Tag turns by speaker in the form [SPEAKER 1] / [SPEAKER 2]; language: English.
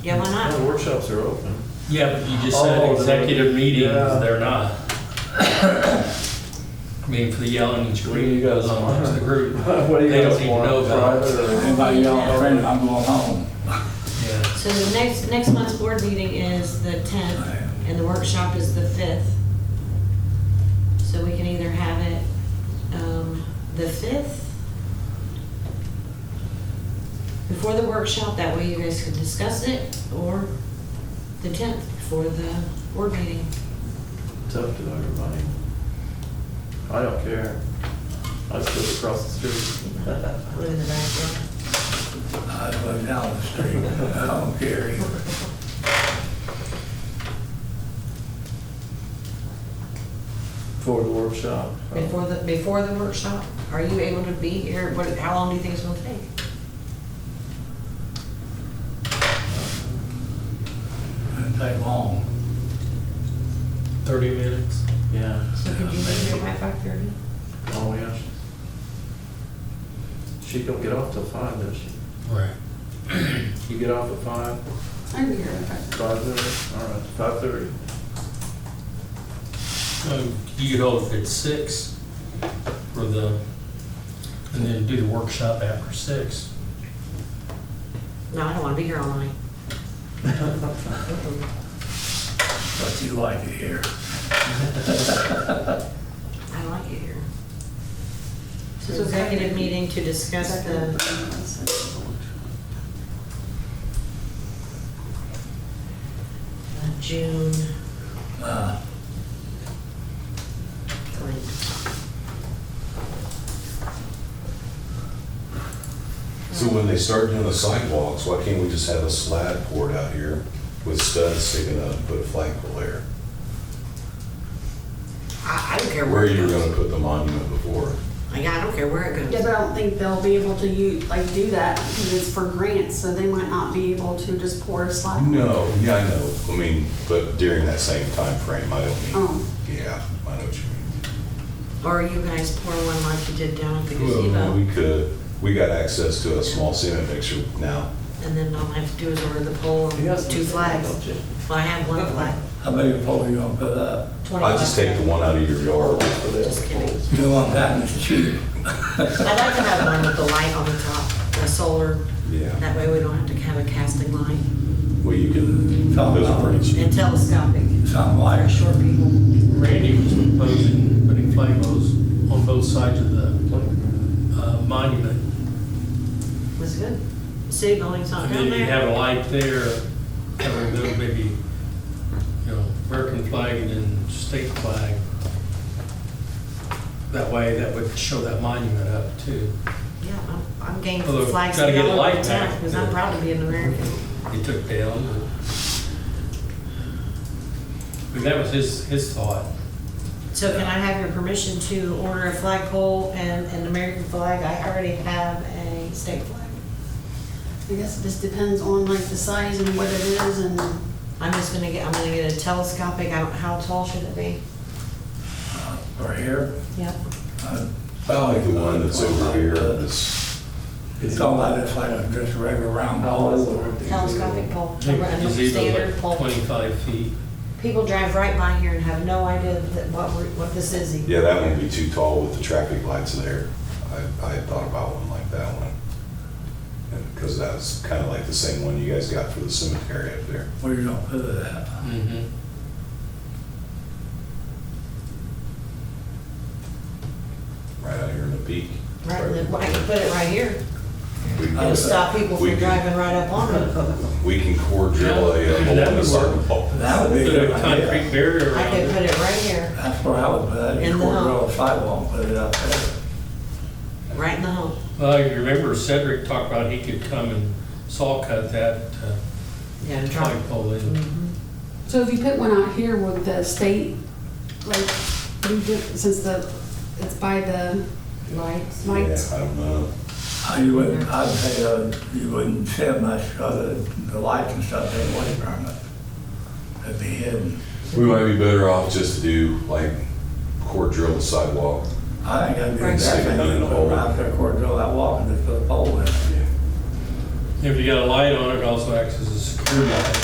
[SPEAKER 1] Yeah, why not?
[SPEAKER 2] Yeah, Workshops are open.
[SPEAKER 3] Yeah, but you just
[SPEAKER 2] Oh,
[SPEAKER 3] said
[SPEAKER 2] the-
[SPEAKER 3] executive meetings,
[SPEAKER 2] yeah.
[SPEAKER 3] they're not. I mean, for the yelling and
[SPEAKER 2] What do you
[SPEAKER 3] screaming
[SPEAKER 2] guys
[SPEAKER 3] goes on amongst the group.
[SPEAKER 2] What do you
[SPEAKER 3] They don't
[SPEAKER 2] guys
[SPEAKER 3] even
[SPEAKER 2] want?
[SPEAKER 3] know about it.
[SPEAKER 2] Private or-
[SPEAKER 4] Anybody y'all friend, I'm going home.
[SPEAKER 3] Yeah.
[SPEAKER 1] So the next, next month's board meeting is the tenth, and the workshop is the fifth. So we can either have it, um, the fifth, before the workshop, that way you guys can discuss it, or the tenth before the board meeting.
[SPEAKER 2] It's up to everybody. I don't care. I just live across the street.
[SPEAKER 1] Put it in the back
[SPEAKER 4] I live down the street, I don't care either.
[SPEAKER 2] For the workshop.
[SPEAKER 1] door. Before the, before the workshop, are you able to be here? What, how long do you think it's gonna take?
[SPEAKER 4] Doesn't take long.
[SPEAKER 3] Thirty minutes.
[SPEAKER 2] Yeah.
[SPEAKER 1] So could you be here by five thirty?
[SPEAKER 2] Oh, yeah. She don't get off till five, does she?
[SPEAKER 3] Right.
[SPEAKER 2] You get off at five,
[SPEAKER 5] I'd be here in fact.
[SPEAKER 2] five thirty, all right, five thirty.
[SPEAKER 3] Um, You could hold it at six for the, and then do the workshop after six.
[SPEAKER 1] No, I don't wanna be here all night.
[SPEAKER 4] But you like it here.
[SPEAKER 1] I like it here. So it's executive meeting to discuss the, the June.
[SPEAKER 4] Uh,
[SPEAKER 1] like,
[SPEAKER 6] So when they start doing the sidewalks, why can't we just have a slab poured out here with studs sticking up, and put a flagpole there?
[SPEAKER 1] I, I don't care where
[SPEAKER 6] Where
[SPEAKER 1] it
[SPEAKER 6] you were
[SPEAKER 1] goes.
[SPEAKER 6] gonna put the monument before?
[SPEAKER 1] Like, I don't care where it
[SPEAKER 5] Yeah,
[SPEAKER 1] goes.
[SPEAKER 5] but I don't think they'll be able to use, like, do that because it's for grants, so they might not be able to just pour a slab.
[SPEAKER 6] No, yeah, I know. I mean, but during that same time frame, I don't
[SPEAKER 5] Oh.
[SPEAKER 6] mean, yeah, I know what you
[SPEAKER 1] Or
[SPEAKER 6] mean.
[SPEAKER 1] you guys pour one like you did down at the
[SPEAKER 6] Well,
[SPEAKER 1] gazebo,
[SPEAKER 6] we could, we got access to a small cement mixer now.
[SPEAKER 1] and then all I have to do is order the pole
[SPEAKER 2] You got
[SPEAKER 1] and
[SPEAKER 2] some
[SPEAKER 1] two
[SPEAKER 2] don't
[SPEAKER 1] flags.
[SPEAKER 2] you?
[SPEAKER 1] Well, I have one flag.
[SPEAKER 4] How big a pole you gonna put up?
[SPEAKER 6] I just take the one out of your yard.
[SPEAKER 1] Just kidding.
[SPEAKER 4] You want that in the street?
[SPEAKER 1] I'd like to have one with the light on the top, the solar.
[SPEAKER 6] Yeah.
[SPEAKER 1] That way we don't have to have a casting light
[SPEAKER 6] Well, you can,
[SPEAKER 4] Talk
[SPEAKER 6] those
[SPEAKER 4] about
[SPEAKER 6] are pretty cheap.
[SPEAKER 1] and telescopic
[SPEAKER 4] Something
[SPEAKER 1] for
[SPEAKER 4] like,
[SPEAKER 1] short people.
[SPEAKER 3] Randy was proposing putting flagpoles on both sides of the uh, monument.
[SPEAKER 1] Was good. City building's not
[SPEAKER 3] And
[SPEAKER 1] down
[SPEAKER 3] then you
[SPEAKER 1] there.
[SPEAKER 3] have a light there, have a little maybe, you know, American flag and then state flag. That way, that would show that monument up too.
[SPEAKER 1] Yeah, I'm, I'm game for
[SPEAKER 3] Although,
[SPEAKER 1] flags.
[SPEAKER 3] gotta get a
[SPEAKER 1] all over
[SPEAKER 3] light
[SPEAKER 1] town,
[SPEAKER 3] back.
[SPEAKER 1] Cause I'm proud to be an American.
[SPEAKER 3] It took down. but- But that was his, his thought.
[SPEAKER 1] So can I have your permission to order a flagpole and an American flag? I already have a state flag.
[SPEAKER 5] I guess it just depends on like the size and what it is and
[SPEAKER 1] I'm just gonna get, I'm gonna get a telescopic, how, how tall should it be?
[SPEAKER 4] or here?
[SPEAKER 1] Yep.
[SPEAKER 4] Uh,
[SPEAKER 6] I like the one that's over here, that's,
[SPEAKER 4] It's all like, it's like a just regular round
[SPEAKER 2] How old
[SPEAKER 4] pole.
[SPEAKER 2] are they?
[SPEAKER 1] Telescopic pole,
[SPEAKER 3] I
[SPEAKER 1] a
[SPEAKER 3] think
[SPEAKER 1] random
[SPEAKER 3] gazebo, like,
[SPEAKER 1] standard pole.
[SPEAKER 3] Twenty-five feet.
[SPEAKER 1] People drive right by here and have no idea that what, we're- what this is. even.
[SPEAKER 6] yeah, that one would be too tall with the traffic lights there. I, I had thought about one like that one. And, Cause that's kinda like the same one you guys got for the cemetery up there.
[SPEAKER 4] Where you gonna put it at?
[SPEAKER 3] Mm-hmm.
[SPEAKER 6] right out here in the peak.
[SPEAKER 1] Right, and then I can put it right here.
[SPEAKER 6] We can-
[SPEAKER 1] It'll stop people
[SPEAKER 6] we
[SPEAKER 1] from
[SPEAKER 6] can-
[SPEAKER 1] driving right up on it.
[SPEAKER 6] We can core drill a uh, hole in the circle pole.
[SPEAKER 4] That would be a
[SPEAKER 3] Put
[SPEAKER 4] good
[SPEAKER 3] a concrete
[SPEAKER 4] idea.
[SPEAKER 3] barrier
[SPEAKER 1] I
[SPEAKER 3] around
[SPEAKER 1] could put
[SPEAKER 3] it.
[SPEAKER 1] it right here,
[SPEAKER 4] That's where I would put it,
[SPEAKER 1] In
[SPEAKER 4] you
[SPEAKER 1] the
[SPEAKER 4] could
[SPEAKER 1] home.
[SPEAKER 4] roll a sidewalk, and put it up there.
[SPEAKER 1] right in the home.
[SPEAKER 3] Well, you remember Cedric talked about he could come and saw cut that uh,
[SPEAKER 1] Yeah, and try.
[SPEAKER 3] flagpole in.
[SPEAKER 5] So if you put one out here, would the state, like, we did, since the, it's by the
[SPEAKER 1] Lights.
[SPEAKER 5] lights?
[SPEAKER 6] Yeah, I don't know.
[SPEAKER 4] Uh, You wouldn't, I'd say, uh, you wouldn't fit much, because the lights and stuff ain't away from it. It'd be hidden.
[SPEAKER 6] We might be better off just to do like core drill the sidewalk.
[SPEAKER 4] I think that'd be
[SPEAKER 1] Right.
[SPEAKER 4] exactly,
[SPEAKER 6] Stick it in the hole.
[SPEAKER 4] right there, court drill that walk and just put a pole in.
[SPEAKER 6] Yeah.
[SPEAKER 3] If you got a light on it, it also acts as a You're not.